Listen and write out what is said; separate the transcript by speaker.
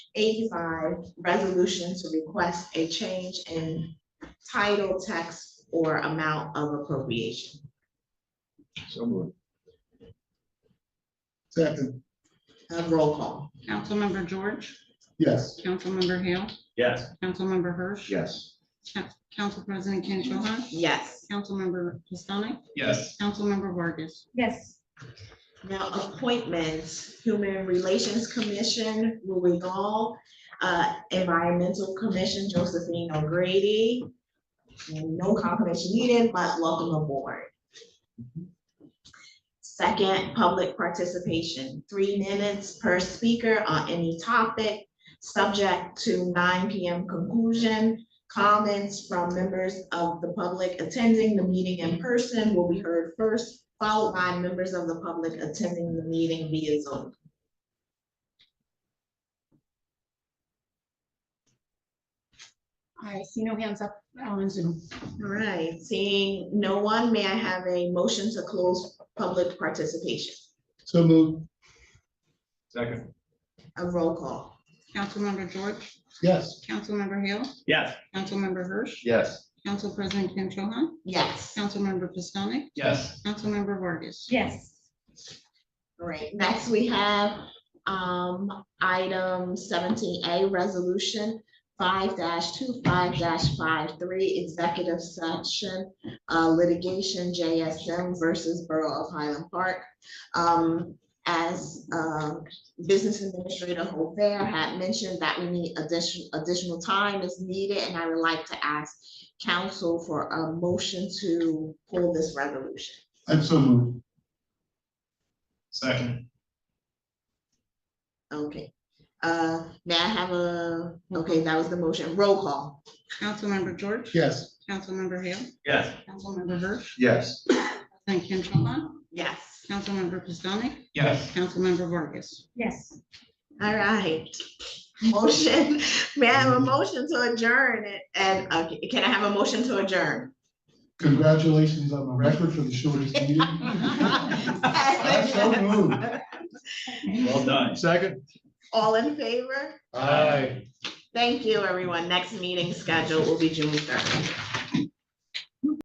Speaker 1: 85, resolution to request a change in title, text, or amount of appropriation.
Speaker 2: So moved. Second,
Speaker 1: Uh, Roll call.
Speaker 3: Councilmember George,
Speaker 2: yes.
Speaker 3: Councilmember Hale,
Speaker 4: Yes.
Speaker 3: Councilmember Hirsch.
Speaker 4: Yes.
Speaker 3: Coun- Council President Ken Cho Han,
Speaker 1: Yes.
Speaker 3: Councilmember Pistonik,
Speaker 4: Yes.
Speaker 3: Councilmember Vargas.
Speaker 5: yes,
Speaker 1: Now, appointments, Human Relations Commission, Louis Gall, uh, Environmental Commission, Josephine O'Grady. And No confirmation needed, but welcome aboard. Second, public participation, three minutes per speaker on any topic, subject to nine PM conclusion. Comments from members of the public attending the meeting in person will be heard first, followed by members of the public attending the meeting via Zoom.
Speaker 3: I see no hands up on Zoom.
Speaker 1: All right, seeing no one, may I have a motion to close public participation?
Speaker 2: So moved,
Speaker 4: Second.
Speaker 1: A roll call.
Speaker 3: Councilmember George,
Speaker 2: yes.
Speaker 3: Councilmember Hale,
Speaker 4: Yes.
Speaker 3: Councilmember Hirsch,
Speaker 4: Yes.
Speaker 3: Council President Ken Cho Han,
Speaker 1: Yes.
Speaker 3: Councilmember Pistonik,
Speaker 4: Yes.
Speaker 3: Councilmember Vargas.
Speaker 5: yes.
Speaker 1: All right, next we have um item seventeen A, resolution five 25 two five executive session uh litigation JSM versus Borough of Highland Park. Um, as um Business Administrator Hobert had mentioned that we need additional additional time is needed, and I would like to ask council for a motion to pull this resolution.
Speaker 2: I'm so moved,
Speaker 4: Second.
Speaker 1: Okay, uh, may I have a, okay, that was the motion, roll call,
Speaker 3: Councilmember George,
Speaker 2: yes.
Speaker 3: Councilmember Hale,
Speaker 4: Yes.
Speaker 3: Councilmember Hirsch,
Speaker 4: Yes.
Speaker 3: President Ken Cho Han,
Speaker 1: yes.
Speaker 3: Councilmember Pistonik,
Speaker 4: Yes.
Speaker 3: Councilmember Vargas.
Speaker 5: Yes,
Speaker 1: All right, motion, may I have a motion to adjourn it, and, uh, can I have a motion to adjourn?
Speaker 2: Congratulations on the record for the shortest meeting. I'm so moved.
Speaker 4: Well done.
Speaker 2: Second.
Speaker 1: All in favor?
Speaker 2: Aye.
Speaker 1: Thank you, everyone, next meeting scheduled will be June third.